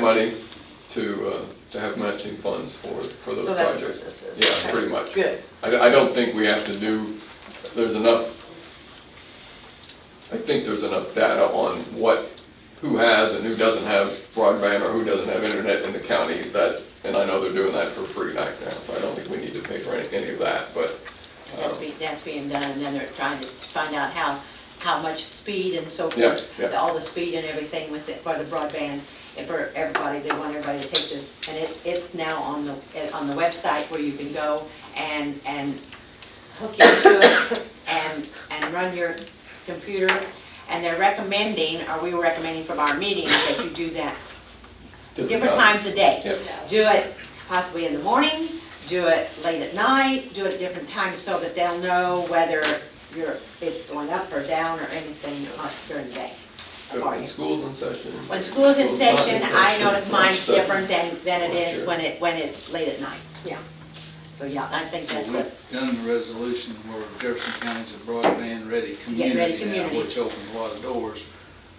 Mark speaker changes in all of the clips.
Speaker 1: money to, uh, to have matching funds for, for those
Speaker 2: So that's what
Speaker 1: projects.
Speaker 2: this is?
Speaker 1: Yeah,
Speaker 2: okay.
Speaker 1: pretty much.
Speaker 2: Good.
Speaker 1: I, I don't think we have to do, there's enough, I think there's enough data on what, who has and who doesn't have broadband or who doesn't have internet in the county that, and I know they're doing that for free right now, so I don't think we need to pay for any, any of that, but,
Speaker 2: That's
Speaker 1: Um,
Speaker 2: being, that's being done, and then they're trying to find out how, how much speed and so
Speaker 1: Yeah,
Speaker 2: forth.
Speaker 1: yeah.
Speaker 2: All the speed and everything with it, for the broadband, and for everybody, they want everybody to take this. And it, it's now on the, it- on the website where you can go and, and hook into it and, and run your computer. And they're recommending, or we were recommending from our meetings, that you do that different times a day.
Speaker 1: Yep.
Speaker 2: Do it possibly in the morning, do it late at night, do it at different times so that they'll know whether you're, it's going up or down or anything on- during the day. for
Speaker 1: When
Speaker 2: you.
Speaker 1: school's in session.
Speaker 2: When school's in
Speaker 1: School's not
Speaker 2: session, I
Speaker 1: session,
Speaker 2: notice
Speaker 1: it's
Speaker 2: mine's
Speaker 1: not
Speaker 2: different than, than it
Speaker 1: Well,
Speaker 2: is
Speaker 1: sure.
Speaker 2: when it, when it's late at night, yeah. So, yeah, I think that's what,
Speaker 3: Done in the resolution where Jefferson County's a broadband-ready
Speaker 2: ready
Speaker 3: community now,
Speaker 2: community.
Speaker 3: which opened a lot of doors.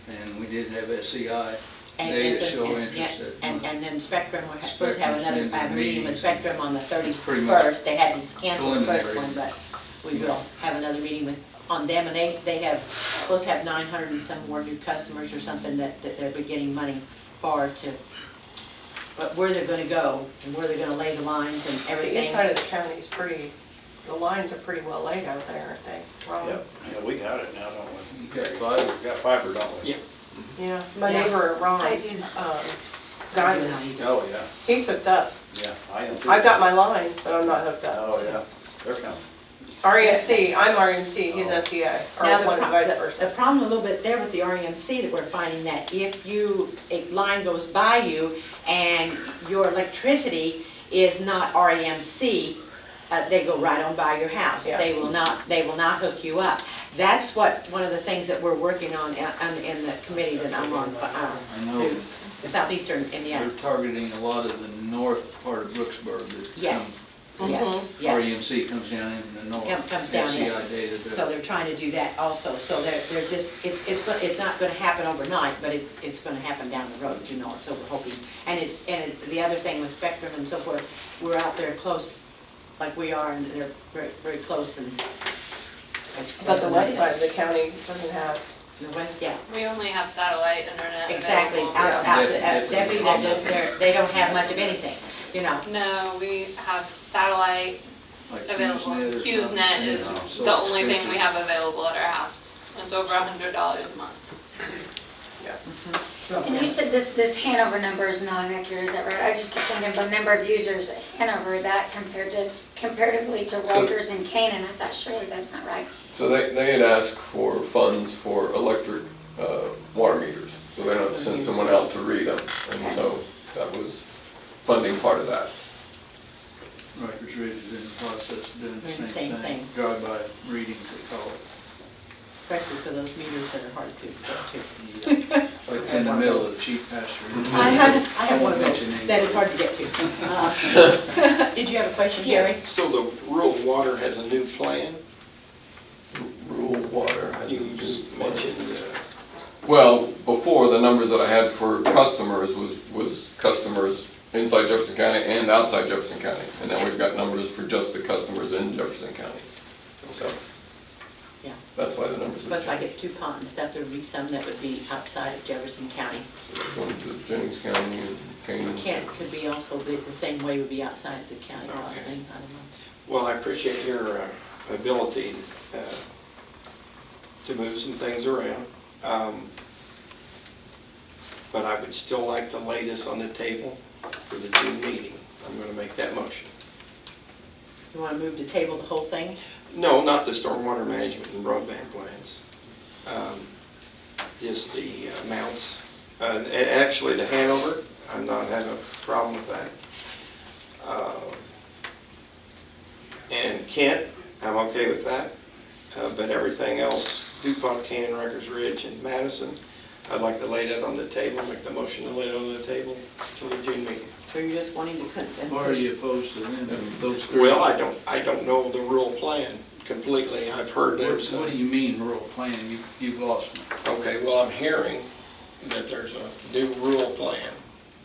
Speaker 3: And we did have E SEI
Speaker 2: and,
Speaker 3: data
Speaker 2: and,
Speaker 3: show
Speaker 2: and- yeah,
Speaker 3: interest at
Speaker 2: and,
Speaker 3: one.
Speaker 2: and then Spectrum, we're supposed to have
Speaker 3: Spectrum's
Speaker 2: another,
Speaker 3: been
Speaker 2: I have a meeting with
Speaker 3: meetings.
Speaker 2: Spectrum on the
Speaker 3: Pretty much
Speaker 2: thirty-first, they had to cancel the first
Speaker 3: preliminary.
Speaker 2: one, but we will have another meeting with, on them, and they, they have, supposed to have nine hundred and some more new customers or something that, that they're beginning money for to, but where they're gonna go, and where they're gonna lay the lines and
Speaker 4: The
Speaker 2: everything.
Speaker 4: east side of the county is pretty, the lines are pretty well laid out there, aren't they? Ron?
Speaker 5: Yep, yeah, we got it now, don't we?
Speaker 3: You got fiber?
Speaker 5: We got fiber, don't we?
Speaker 3: Yeah.
Speaker 4: Yeah, my
Speaker 2: Yeah.
Speaker 4: neighbor, Ron,
Speaker 6: I do
Speaker 4: um,
Speaker 2: I do
Speaker 4: Guyman,
Speaker 2: not either.
Speaker 5: Oh, yeah,
Speaker 4: he's hooked up.
Speaker 5: yeah, I am too.
Speaker 4: I've got my line, but I'm not hooked up.
Speaker 5: Oh, yeah, they're coming.
Speaker 4: REMC, I'm REMC, he's
Speaker 5: Oh.
Speaker 4: SEI,
Speaker 2: Now,
Speaker 4: or
Speaker 2: the
Speaker 4: one
Speaker 2: pro-
Speaker 4: vice
Speaker 2: the- The
Speaker 4: versa.
Speaker 2: problem a little bit there with the REMC that we're finding that if you, a line goes by you and your electricity is not REMC, uh, they go right on by your house.
Speaker 4: Yeah.
Speaker 2: They will not, they will not hook you up. That's what, one of the things that we're working on in, on- in the committee that I'm on, uh,
Speaker 3: I know
Speaker 2: through Southeastern
Speaker 3: they're
Speaker 2: Indiana.
Speaker 3: targeting a lot of the north part of Brooksburg. that
Speaker 2: Yes,
Speaker 3: come-
Speaker 2: yes, yes.
Speaker 3: REMC comes down in the north.
Speaker 2: Come- comes down in.
Speaker 3: SEI data. does.
Speaker 2: So they're trying to do that also. So they're, they're just, it's, it's, go- it's not gonna happen overnight, but it's, it's gonna happen down the road, you know, so we're hoping. And it's, and it- the other thing with Spectrum and so forth, we're out there close, like we are, and they're very, very close and.
Speaker 4: But the west side of the county doesn't have,
Speaker 2: The west, yeah,
Speaker 6: We only have satellite internet
Speaker 2: exactly.
Speaker 6: available.
Speaker 2: Out, out, uh, to-
Speaker 3: Yeah.
Speaker 2: out- Debbie, they're just, they're, they don't have much of anything, you know.
Speaker 6: No, we have satellite
Speaker 3: Like
Speaker 6: available.
Speaker 3: HughesNet or something.
Speaker 6: HughesNet
Speaker 3: It's
Speaker 6: is
Speaker 3: uh, so
Speaker 6: the only thing we
Speaker 3: expensive.
Speaker 6: have available at our house. It's over a hundred dollars a month.
Speaker 7: And you said this, this Hanover number is not accurate, is that right? I just kept thinking about number of users at Hanover, that compared to, comparatively to Rikers and Canaan, I thought surely that's not right.
Speaker 1: So they, they had asked for funds for electric, uh, water meters, so they don't have to send someone out to read them. And so that was funding part of that.
Speaker 3: Rikers Ridge is in the process of doing the
Speaker 2: Doing the
Speaker 3: same
Speaker 2: same
Speaker 3: thing.
Speaker 2: thing.
Speaker 3: Drive-by readings, they call it.
Speaker 2: Especially for those meters that are hard to, get
Speaker 3: Like it's in the middle of the cheap pasture.
Speaker 2: to. I have, I have one of those
Speaker 3: Mentioning-
Speaker 2: that is hard to get to. Uh, Did you have a question, Gary?
Speaker 8: So the rural water has a new plan?
Speaker 1: Rural water has.
Speaker 8: You just mentioned, uh,
Speaker 1: Well, before, the numbers that I had for customers was, was customers inside Jefferson County and outside Jefferson County. And now we've got numbers for just the customers in Jefferson County. So,
Speaker 2: Yeah.
Speaker 1: that's why the numbers
Speaker 2: But
Speaker 1: are
Speaker 2: if I
Speaker 1: changed.
Speaker 2: get two ponds, stuff, there'd be some that would be outside of Jefferson County.
Speaker 1: Going to Jennings County and Kane.
Speaker 2: Kent could be also, the, the same way would be outside of the county, I would think, I don't know.
Speaker 8: Well, I appreciate your uh, ability uh, to move some things around. Um, But I would still like to lay this on the table for the June meeting. I'm going to make that motion.
Speaker 2: You wanna move to table the whole thing?
Speaker 8: No, not the stormwater management and broadband plans. Um, Just the amounts. Uh, a- Actually, the Hanover, I'm not having a problem with that. Um, And Kent, I'm okay with that. Uh, But everything else, DuPont, Cannon, Rikers Ridge, and Madison, I'd like to lay that on the table, make the motion to lay it on the table till the June meeting.
Speaker 2: So you're just wanting to put them?
Speaker 3: Or are you opposed to them, those three?
Speaker 8: Well, I don't, I don't know the rural plan completely. I've heard
Speaker 3: What
Speaker 8: there's. a-
Speaker 3: what do you mean rural plan? You, you've lost me.
Speaker 8: Okay, well, I'm hearing that there's a new rural plan